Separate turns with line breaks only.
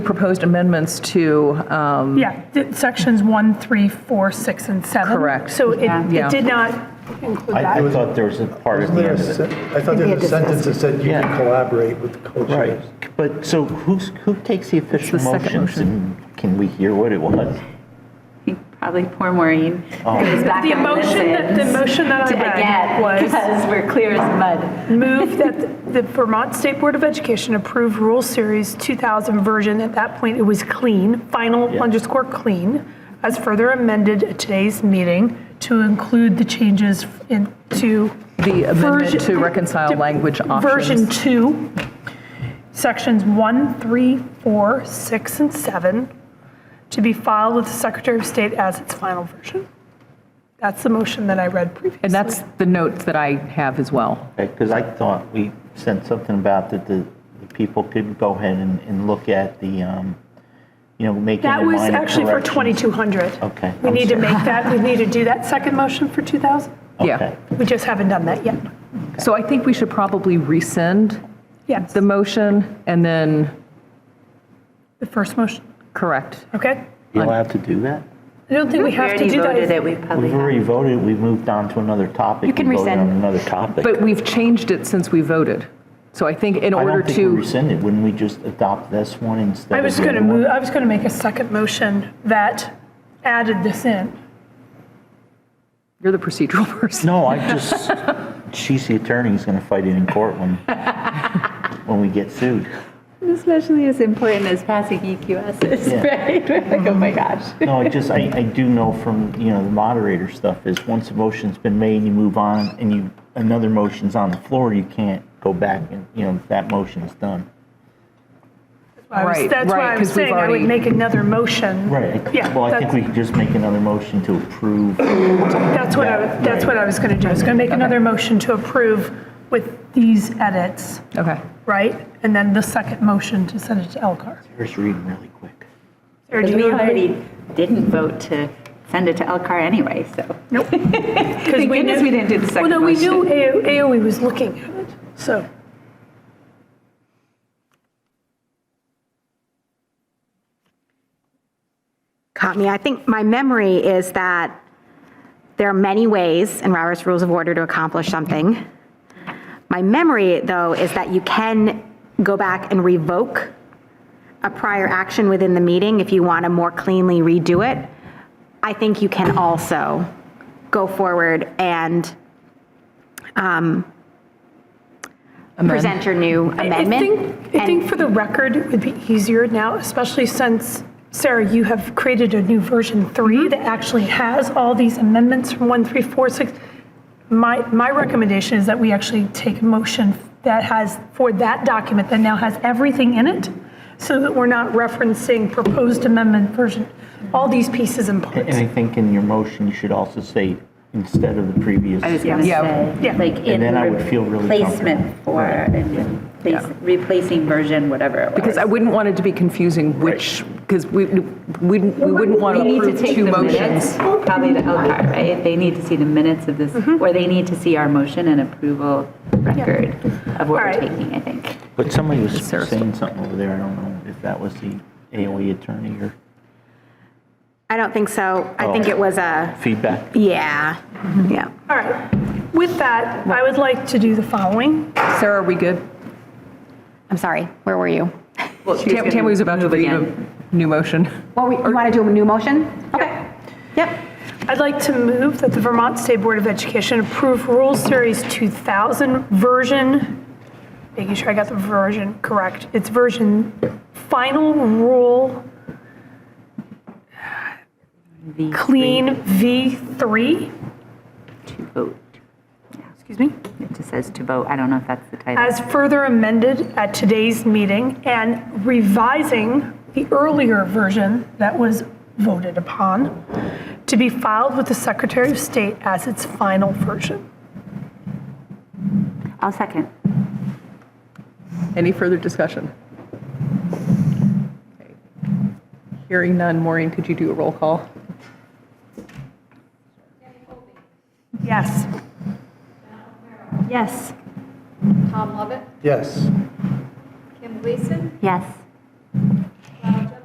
proposed amendments to, um,
Yeah, th- sections one, three, four, six, and 7.
Correct.
So it
Yeah.
it did not include
I I
that.
thought there was a part at
Wasn't
the
there a
end of
sen-
it.
I thought there was a sentence that said you can
Yeah.
collaborate with the culture.
Right, but so who's, who takes the official
the second
motions?
motion.
and Can we hear what it was?
Probably poor Maureen. goes back
The
and
motion that- the
listens
motion that I
to-
read
again,
was-
Because we're clear as mud.
Move that the Vermont State Board of Education approve Rule Series 2000 version. At that point, it was clean, final
Yeah.
underscore clean, as further amended at today's meeting to include the changes in- to
the amendment
Version-
to reconcile
to-
language
Version
options.
two, sections one, three, four, six, and seven, to be filed with the Secretary of State as its final version. That's the motion that I read previously.
And that's the note that I have as well.
Because I thought we sent something about that the the people could go ahead and, and look at the, um, you know, making
That
the
was
minor
actually for
corrections.
2,200.
Okay,
We
I'm
need to
sorry.
make that, we need to do that second motion for 2,000.
Yeah.
Okay.
We just haven't done that yet.
So I think we should probably rescind
Yes,
the motion and then
the first motion,
correct.
okay?
You allowed to do that?
I don't think we
We
have to
already
do
voted
that.
it, we probably
We've
have.
already voted, we moved on to another topic.
You can
We voted on
rescind.
another topic.
But we've changed it since we voted. So I think in
I
order
don't think we
to,
rescinded, wouldn't we just adopt this one instead
I
of
was
the
going to
other one?
move, I was going to make a second motion that added this in.
you're the procedural person.
No, I just, she's the attorney who's going to fight it in court when, when we get sued.
Especially as important as passing E EQSs,
Yeah.
right? We're like, oh my gosh.
No, I just, I, I do know from, you know, the moderator stuff is once a motion's been made, you move on and you, another motion's on the floor, you can't go back and, you know, that motion's done.
I was-
Right,
That's why
right,
I
'cause
was
we've
saying I would
already-
make another motion.
Right.
Yeah,
Well, I think
that's,
we could just make another motion to approve.
that's what I,
Yeah,
was- that's
right.
what I was going to do. I was going to make another motion to approve with these edits,
Okay.
right? And then the second motion to send it to Elcar.
First reading really quick.
Sarah, do
Because
you
we
have any-
already didn't vote to send it to Elcar anyway, so.
Nope. Because
Thank goodness we didn't do the second
Well, no, we knew
motion.
AO AOE E was looking at it, so.
caught me. I think my memory is that there are many ways in Robert's Rules of Order to accomplish something. My memory, though, is that you can go back and revoke a prior action within the meeting if you want to more cleanly redo it. I think you can also go forward and um, present your new
I
amendment.
think, I think for the record, it would be easier now, especially since, Sarah, you have created a new version three that actually has all these amendments from one, three, four, six. My, my recommendation is that we actually take a motion that has, for that document that now has everything in it, so that we're not referencing proposed amendment version, all these pieces and parts.
And I think in your motion, you should also say, instead of the previous.
I was gonna
Yeah.
Yeah.
say, like in
then I would feel really
replacement
comfortable.
for, and replace- replacing version, whatever it was.
Because I wouldn't want it to be confusing which, because we, we, we wouldn't want
We
to
need to
approve
take
two
the
motions.
minutes, probably to Elkhart, right? They need to see the minutes of this,
Mm-hmm.
or they need to see our motion and approval record of what we're
Alright.
taking, I think.
But somebody was
Sarah's-
saying something over there, I don't know if that was the AOE attorney or
I don't think so. I think
Oh.
it was a,
feedback.
yeah, yeah.
All right. With that, I would like to do the following.
Sarah, are we good?
I'm sorry, where were you?
Well, she's
Tam-
gonna
Tammy was about to
move
read a
again.
new motion.
Well, we- you want to do a new motion? Okay. Yep.
I'd like to move that the Vermont State Board of Education approve Rule Series 2000 version, making sure I got the version correct, it's version final rule
V
clean V3,
To vote.
excuse me,
It just says to vote. I don't know if that's the title.
as further amended at today's meeting and revising the earlier version that was voted upon to be filed with the Secretary of State as its final version.
Uh,
I'll second.
Any further discussion? Okay. Hearing none, Maureen, could you do a roll call?
Yes.
Yes.
Tom Lovett,
Yes.
Kim Gleason,
Yes.